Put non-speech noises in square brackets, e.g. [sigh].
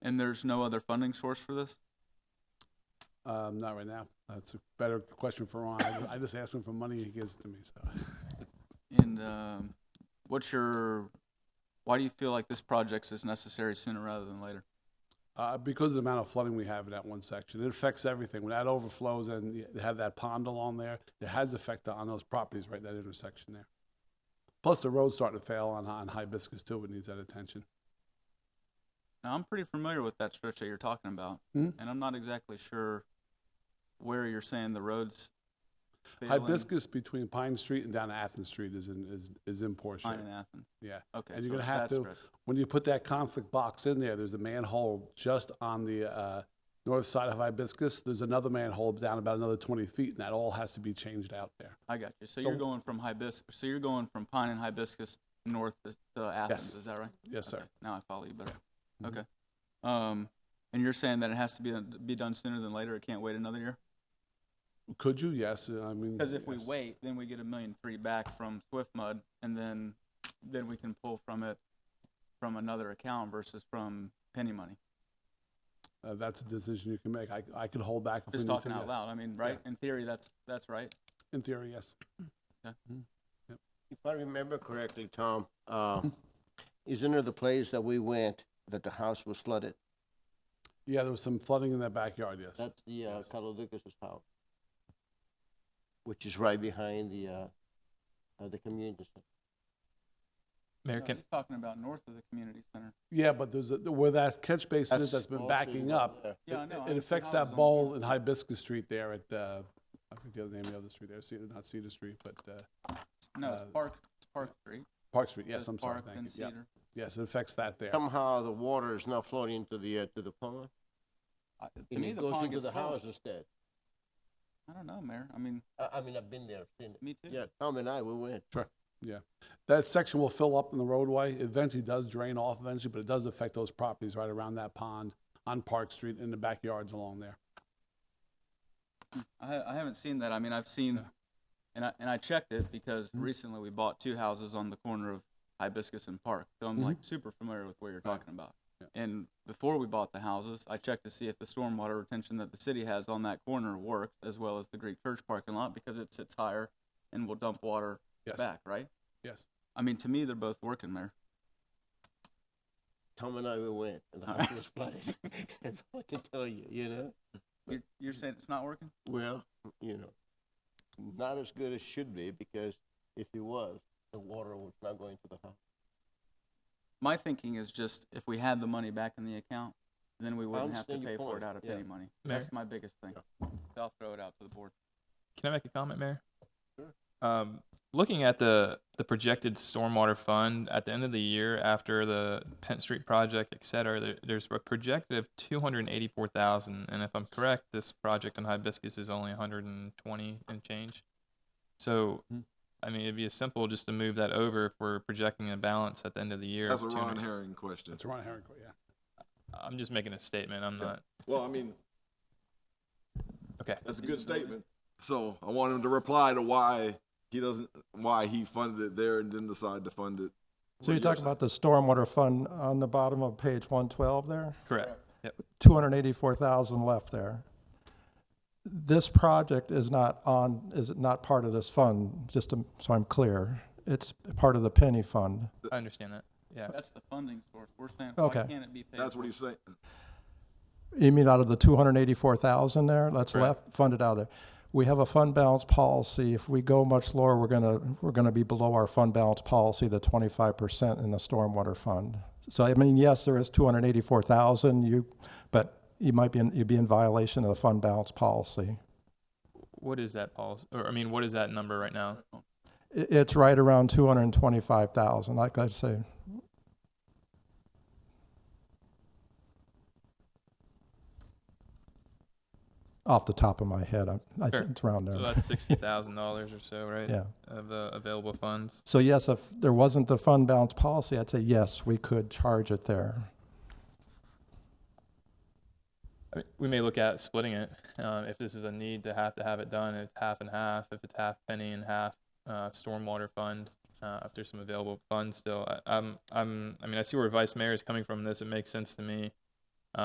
And there's no other funding source for this? Um, not right now. That's a better question for Ron. I- I just asked him for money, he gives it to me, so. And um, what's your, why do you feel like this project is necessary sooner rather than later? Uh, because of the amount of flooding we have in that one section, it affects everything. When that overflows and you have that pond along there, it has effect on those properties right that intersection there. Plus, the road's starting to fail on, on Hibiscus too. It needs that attention. Now, I'm pretty familiar with that stretch that you're talking about, Mhm. and I'm not exactly sure where you're saying the roads. failing Hibiscus between Pine Street and down to Athens Street is in is, is in poor shape. Pine and Athens. Yeah. Okay. And so you're gonna it's have that to, stretch. when you put that conflict box in there, there's a manhole just on the uh, north side of Hibiscus. There's another manhole down about another 20 feet, and that all has to be changed out there. I got you. So, So- you're going from hibiscus. So you're going from pine and hibiscus north to, to Athens. Is that right? Yes, sir. Okay, Now I follow you better. Mhm. Okay. Um, and you're saying that it has to be be done sooner than later. It can't wait another year. Could you? Yes. Uh, I mean, Because if we yes. wait, then we get a million three back from Swift Mud, and then then we can pull from it from another account versus from penny money. Uh, that's a decision you can make. I, I could hold back if Just we need talking to, out yes. loud. I mean, right? In theory, that's that's right. In theory, yes. If I remember correctly, Tom, uh, [laughs] isn't it the place that we went that the house was flooded? Yeah, there was some flooding in that backyard, yes. That's the uh, Yes. Carlo Lucas's house, which is right behind the uh, uh, the community. center. No, he's talking about north of the community center. yeah, but there's a, where that catch basin is that's been also backing right up. there. Yeah, I it, know, I it see affects houses that on- bowl in Hibiscus Street there at, uh, I think the other name of the other street there, Cedar, not Cedar Street, but uh, No, it's Uh, Park Park Street. Park Street. Yes, It's I'm sorry. Park, Thank then you. Yeah. Cedar. Yes, it affects that there. Somehow the water is now flowing into the uh, to the pond, I- To and me, it the goes pond into gets the full. house instead. I don't know, Mayor. I mean, I, I mean, I've been there, seen it. me too. Yeah, Tom and I, we went. That section will fill up in the roadway. It Eventually does drain off eventually, but it does affect those properties right around that pond on Park Street and the backyards along there. I, ha- I haven't seen that. I mean, I've seen, Yeah. and I and I checked it because Mhm. recently we bought two houses on the corner of Hibiscus and Park, so I'm like super familiar with what you're Mm-hmm. Right. talking about. Yeah. And before we bought the houses, I checked to see if the stormwater retention that the city has on that corner worked, as well as the Greek Church parking lot, because it sits higher and will dump water Yes. back. Right? Yes. I mean, to me, they're both working, Mayor. Tom and I, we went, and the All house right. [laughs] was flooded. [laughs] That's all I can tell you. You know. You're, you're saying it's not working? Well, you know, not as good as should be because if it was, the water was not going to the house. My thinking is just if we had the money back in the account, then we wouldn't have to understand your pay for it point, out of yeah. penny money. Mayor? That's my biggest thing. So I'll throw it out to the board. Can I make a comment, Mayor? Sure. Um, looking at the the projected stormwater fund at the end of the year after the Penn Street project, et cetera, there, there's a projected of two hundred eighty four thousand, and if I'm correct, this project on Hibiscus is only one hundred and twenty and change. So, Hmm. I mean, it'd be as simple just to move that over if we're projecting a balance at the end of the year. That's a of Ron 200 Herring question. That's Ron Herrick, yeah. I'm just making a statement. I'm not. Well, I mean, Okay. that's a good statement. So I want him to reply to why he doesn't, why he funded it there and then decide to fund it. So you're talking about the stormwater fund on the bottom of page one twelve there, Correct. Yep. two hundred and eighty-four thousand left there. This project is not on, is not part of this fund, just to- so I'm clear. It's part of the penny fund. I understand that. Yeah. That's the funding source. We're saying, why Okay. can't it be paid? That's what for? he's saying. You mean out of the two hundred and eighty-four thousand there, that's Correct. left, funded out of there? We have a fund balance policy. If we go much lower, we're gonna, we're gonna be below our fund balance policy, the twenty-five percent in the stormwater fund. So I mean, yes, there is two hundred and eighty-four thousand, you, but you might be, in- you'd be in violation of the fund balance policy. What is that, Paul? Or I mean, what is that number right now? I it's right around two hundred and twenty-five thousand, like I say. Off the top of my head, I, I Sure. think it's around there. So [laughs] that's sixty thousand dollars or so, right? Yeah. Of uh, available funds. So yes, if there wasn't the fund balance policy, I'd say yes, we could charge it there. I mean, we may look at splitting it um, if this is a need to have to have it done. If it's half and half, if it's half penny and half uh, stormwater fund, uh, if there's some available funds still. I, I'm, I'm, I mean, I see where Vice Mayor is coming from. This it makes sense to me